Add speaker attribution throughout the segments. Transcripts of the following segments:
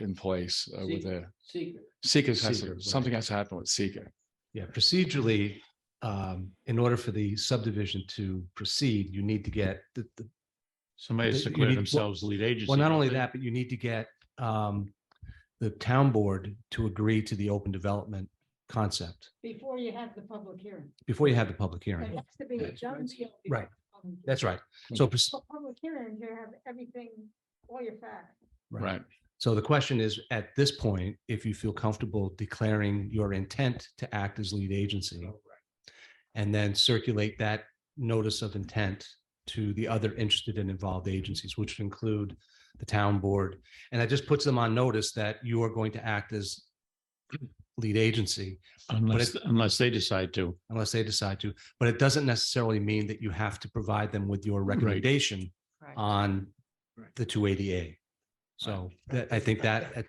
Speaker 1: in place uh, with a
Speaker 2: Secret.
Speaker 1: seeker, has
Speaker 3: Seeker,
Speaker 1: to-
Speaker 3: right.
Speaker 1: something has to happen with seeker.
Speaker 3: Yeah, procedurally, um, in order for the subdivision to proceed, you need to get the, the,
Speaker 4: Somebody has to
Speaker 3: You
Speaker 4: declare
Speaker 3: need-
Speaker 4: themselves lead agency.
Speaker 3: well, not
Speaker 4: don't
Speaker 3: only
Speaker 4: they?
Speaker 3: that, but you need to get, um, the town board to agree to the open development concept
Speaker 2: Before you have the public hearing.
Speaker 3: before you have the public
Speaker 2: There
Speaker 3: hearing.
Speaker 2: has to be a done deal. before
Speaker 3: Right.
Speaker 2: public hearing.
Speaker 3: That's right. So, proce-
Speaker 2: For Public hearing, you have everything, all your facts.
Speaker 3: Right.
Speaker 1: Right.
Speaker 3: so the question is, at this point, if you feel comfortable declaring your intent to act as lead agency and then circulate that notice of intent to the other interested and involved agencies, which would include the town board. And that just puts them on notice that you are going to act as lead agency
Speaker 4: Unless, unless they decide to.
Speaker 3: unless they decide to, but it doesn't necessarily mean that you have to provide them with your recommendation
Speaker 5: Correct.
Speaker 3: on
Speaker 6: Right.
Speaker 3: the two eighty A. So that, I think that, at-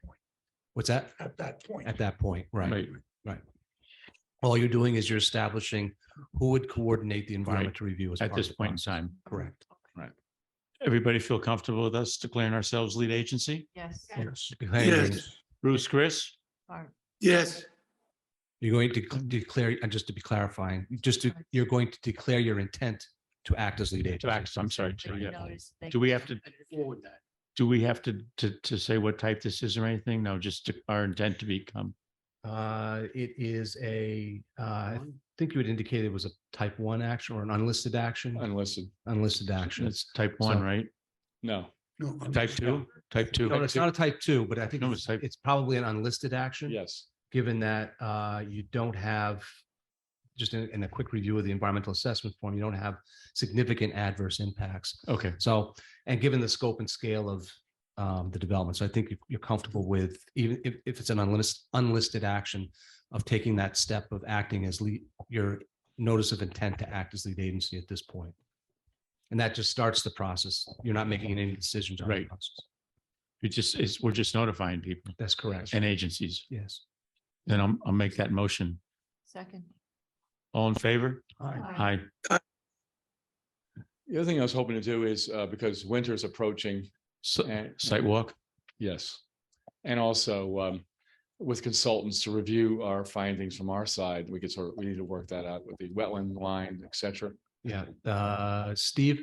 Speaker 3: what's that?
Speaker 6: At that point.
Speaker 3: At that point, right?
Speaker 4: Right.
Speaker 3: All you're doing is you're establishing who would coordinate the environmental review as
Speaker 4: At
Speaker 3: part
Speaker 4: this
Speaker 3: of the
Speaker 4: point in
Speaker 3: process.
Speaker 4: time.
Speaker 3: Correct.
Speaker 4: Everybody feel comfortable with us declaring ourselves lead agency?
Speaker 5: Yes.
Speaker 3: Yes.
Speaker 6: Yes,
Speaker 4: Bruce, Chris?
Speaker 5: Barb,
Speaker 6: yes,
Speaker 3: You're going to c- declare, and just to be clarifying, just to, you're going to declare your intent to act as lead
Speaker 4: To
Speaker 3: agent.
Speaker 4: act- I'm sorry. to-
Speaker 5: but you
Speaker 4: yeah.
Speaker 5: notice they
Speaker 4: Do we
Speaker 5: can
Speaker 4: have to
Speaker 5: come under
Speaker 4: forward that? Do we have to, to, to say what type this is or anything? No, just to- our intent to become.
Speaker 3: Uh, it is a, uh, I think you had indicated it was a type one action or an unlisted action.
Speaker 1: Unlisted.
Speaker 3: unlisted action.
Speaker 4: It's type one,
Speaker 3: So-
Speaker 4: right?
Speaker 1: No.
Speaker 6: no. I'm-
Speaker 4: Type two, type two.
Speaker 3: No, it's not a type two, but I think
Speaker 4: No,
Speaker 3: it's
Speaker 4: it's type-
Speaker 3: it's probably an unlisted action.
Speaker 1: Yes.
Speaker 3: Given that uh, you don't have, just in, in a quick review of the environmental assessment form, you don't have significant adverse impacts.
Speaker 4: Okay,
Speaker 3: So, and given the scope and scale of um, the development, so I think you- you're comfortable with, even if, if it's an unlisted, unlisted action of taking that step of acting as lead, your notice of intent to act as lead agency at this point. And that just starts the process. You're not making any decisions. on the
Speaker 4: Right.
Speaker 3: process.
Speaker 4: it just is, we're just notifying people
Speaker 3: That's correct.
Speaker 4: and agencies.
Speaker 3: Yes.
Speaker 4: Then I'll, I'll make that motion.
Speaker 5: Second.
Speaker 4: All in favor? Aye.
Speaker 1: The other thing I was hoping to do is, uh, because winter's approaching
Speaker 4: So,
Speaker 1: and.
Speaker 4: Uh, site walk?
Speaker 1: Yes. And also um, with consultants to review our findings from our side, we could sort of, we need to work that out with the wetland line, et cetera.
Speaker 3: Yeah. Uh, Steve,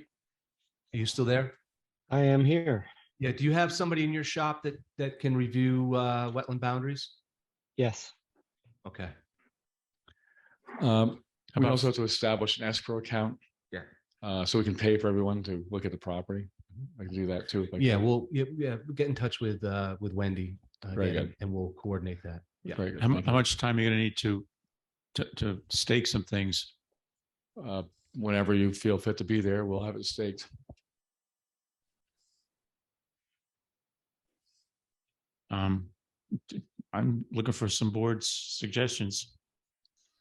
Speaker 3: are you still there?
Speaker 7: I am here.
Speaker 3: Yeah. Do you have somebody in your shop that, that can review uh, wetland boundaries?
Speaker 7: Yes.
Speaker 3: Okay.
Speaker 1: Um,
Speaker 4: How
Speaker 1: We
Speaker 4: about-
Speaker 1: also have to establish an escrow account.
Speaker 3: Yeah.
Speaker 1: Uh, So we can pay for everyone to look at the property. I can do that too. if I
Speaker 3: Yeah,
Speaker 1: can.
Speaker 3: we'll, yeah, yeah, get in touch with, uh, with Wendy. uh,
Speaker 1: Very
Speaker 3: again,
Speaker 1: good.
Speaker 3: And we'll coordinate that. Yeah.
Speaker 1: Very good.
Speaker 4: How, mu-
Speaker 1: Thank
Speaker 4: how much time are you gonna need to, to, to stake some things?
Speaker 1: you. Uh, Whenever you feel fit to be there, we'll have it staked.
Speaker 4: Um, t- I'm looking for some board suggestions.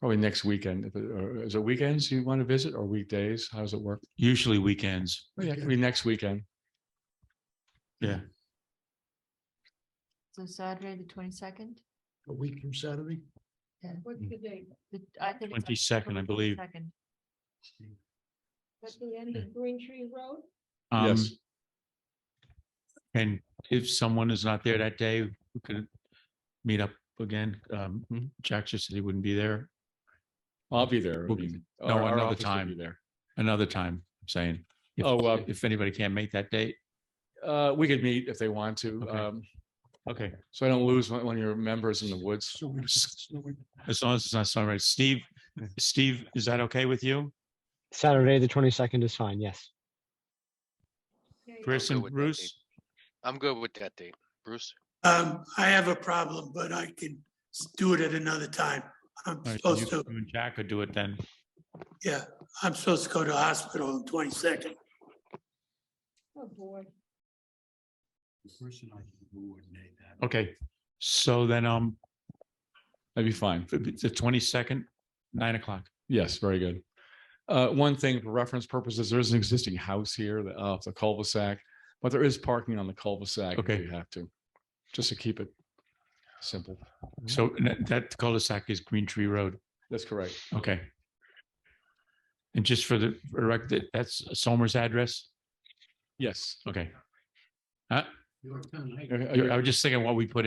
Speaker 1: Probably next weekend. If it- or Is it weekends you want to visit or weekdays? How does it work?
Speaker 4: Usually weekends.
Speaker 1: Yeah, it could be next weekend.
Speaker 4: Yeah.
Speaker 5: So Saturday, the twenty-second?
Speaker 6: A week from Saturday?
Speaker 2: What's the date?
Speaker 5: I think. it's
Speaker 4: 22nd, I
Speaker 5: October
Speaker 4: believe.
Speaker 5: 22nd.
Speaker 2: At the end of Green Tree Road?
Speaker 4: Um,
Speaker 1: Yes.
Speaker 4: And if someone is not there that day, we could meet up again. Um,
Speaker 1: Mm-hmm.
Speaker 4: Jack just said he wouldn't be there
Speaker 1: I'll be there. I
Speaker 4: We'll be-
Speaker 1: mean,
Speaker 4: no,
Speaker 1: our- our
Speaker 4: another
Speaker 1: office will
Speaker 4: time.
Speaker 1: be There.
Speaker 4: another time, I'm saying. if-
Speaker 1: Oh, uh,
Speaker 4: If anybody can't make that date,
Speaker 1: Uh, we could meet if they want to.
Speaker 4: Okay.
Speaker 1: Um,
Speaker 4: okay,
Speaker 1: so I don't lose one, one of your members in the woods.
Speaker 6: So we just- so we-
Speaker 4: as long as it's not sunrise. Steve, Steve, is that okay with you?
Speaker 7: Saturday, the 22nd is fine. Yes.
Speaker 2: Okay.
Speaker 4: Chris
Speaker 8: good
Speaker 4: and
Speaker 8: with that date.
Speaker 4: Bruce?
Speaker 8: I'm good with that date. Bruce?
Speaker 6: Um, I have a problem, but I can s- do it at another time. I'm
Speaker 4: All right, so
Speaker 6: supposed
Speaker 4: you-
Speaker 6: to,
Speaker 4: you and Jack could do it then.
Speaker 6: yeah, I'm supposed to go to hospital on twenty-second.
Speaker 2: Oh, boy.
Speaker 4: Okay, so then, um,
Speaker 1: That'd be fine.
Speaker 4: the twenty-second, nine o'clock.
Speaker 1: Yes, very good. Uh, one thing for reference purposes, there is an existing house here, the, uh, the cul-de-sac, but there is parking on the cul-de-sac.
Speaker 4: Okay.
Speaker 1: If you have to, just to keep it simple. Mm-hmm.
Speaker 4: So n- that cul-de-sac is Green Tree Road.
Speaker 1: That's correct.
Speaker 4: Okay. And just for the record, that's Somers address?
Speaker 1: Yes.
Speaker 4: Okay. Huh?
Speaker 1: Are you-
Speaker 4: I was just thinking what we put in.